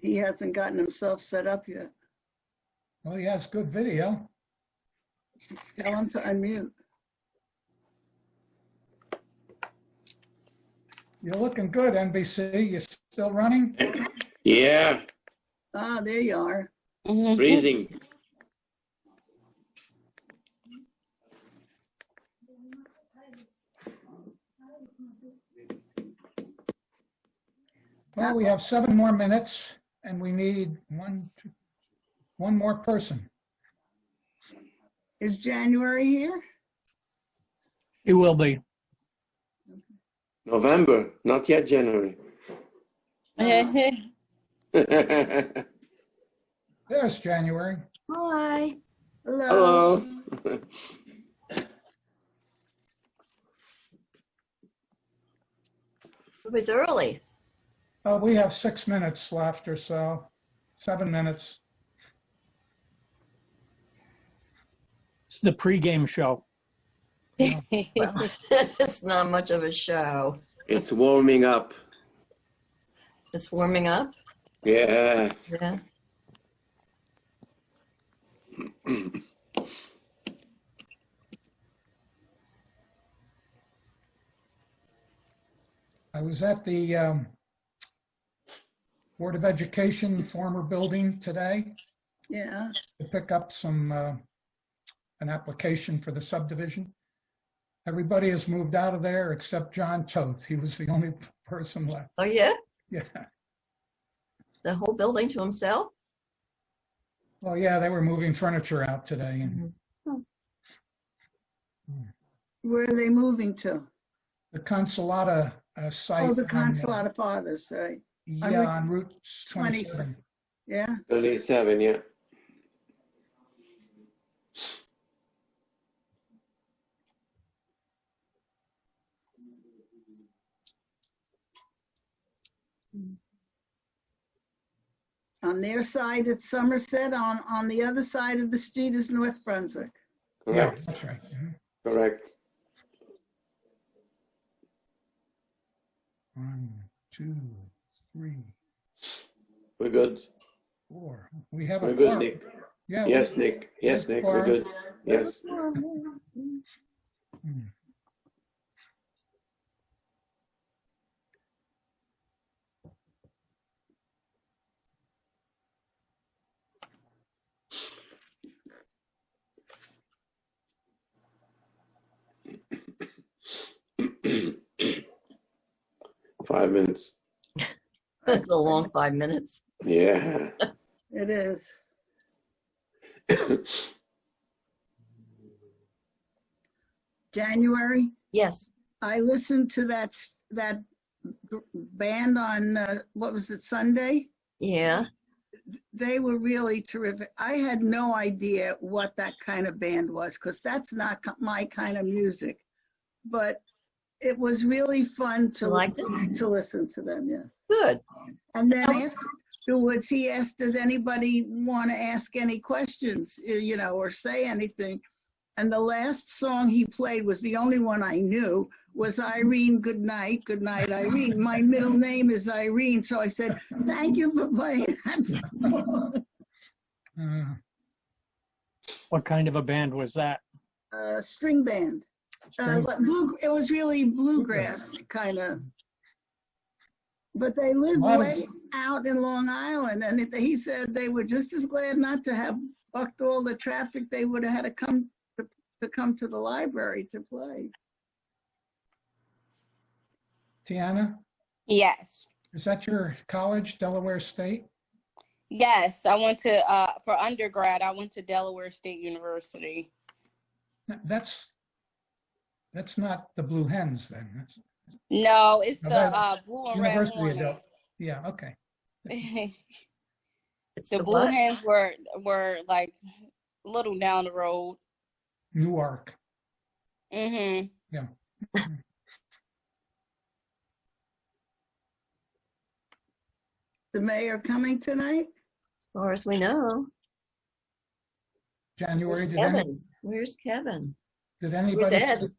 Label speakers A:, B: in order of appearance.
A: he hasn't gotten himself set up yet.
B: Well, he has good video.
A: Tell him to unmute.
B: You're looking good, NBC. You're still running?
C: Yeah,
A: Ah, there you are.
D: Mm-hmm.
C: freezing.
B: Well, we have seven more minutes and we need one, two, one more person.
A: Is January here?
E: It will be.
C: November, not yet January.
B: Mm-hmm.
C: Hello.
B: There's January.
F: Hi.
A: Hello.
F: It was early.
B: Uh, we have six minutes left or so, seven minutes.
E: It's the pregame show.
F: it's not much of a show.
C: It's warming up.
F: It's warming up.
C: Yeah.
F: Yeah.
B: I was at the um, Board of Education former building today
A: Yeah.
B: to pick up some, uh, an application for the subdivision. Everybody has moved out of there except John Toth. He was the only person left.
F: Oh yeah.
B: Yeah.
F: The whole building to himself.
B: Well, yeah, they were moving furniture out today and
A: Where are they moving to?
B: the Consolata uh, site.
A: Oh, the
B: on, uh,
A: Consulate of Fathers, right? on
B: Yeah,
A: Route
B: on Route 27.
A: 27. Yeah.
C: 37, yeah.
A: On their side, it's Somerset. On, on the other side of the street is North Brunswick.
B: Yeah,
C: Correct,
B: that's right. Mhm.
C: correct.
B: One, two, three,
C: We're good.
B: four. We have
C: We're
B: a
C: good,
B: quorum.
C: Nick.
B: Yeah, we-
C: Yes, Nick. Yes, Nick. We're good. Yes.
B: Hmm.
C: Five minutes.
F: That's a long five minutes.
C: Yeah.
A: It is. January.
F: Yes.
A: I listened to that, s- that b- band on, uh, what was it, Sunday?
F: Yeah.
A: They were really terrific. I had no idea what that kind of band was because that's not ki- my kind of music. But it was really fun to,
F: You liked
A: listen- to listen to them, yes.
F: Good.
A: And then afterwards, he asked, does anybody want to ask any questions, eh, you know, or say anything? And the last song he played was the only one I knew, was Irene Goodnight, Goodnight Irene. My middle name is Irene, so I said, thank you for playing that song.
B: Uh,
E: What kind of a band was that?
A: Uh, String band. Uh,
B: strange.
A: but blue, it was really bluegrass, kind of. But they lived
B: Lot of-
A: way out in Long Island, and it- he said they were just as glad not to have bucked all the traffic they would have had to come, to to come to the library to play.
B: Tiana,
D: Yes.
B: is that your college, Delaware State?
D: Yes. I went to, uh, for undergrad, I went to Delaware State University.
B: Th- That's, that's not the Blue Hens then. That's-
D: No, it's
B: Now
D: the
B: that-
D: uh, Blue and Red
B: University of
D: Hornets.
B: Del, yeah, okay.
D: the
F: It's
D: Blue Hens were, were like a little down the road.
B: Newark.
D: Mm-hmm.
A: The mayor coming tonight?
F: As far as we know.
B: January,
F: Where's
B: did any,
F: Kevin? Where's Kevin?
B: did anybody,
F: Ed?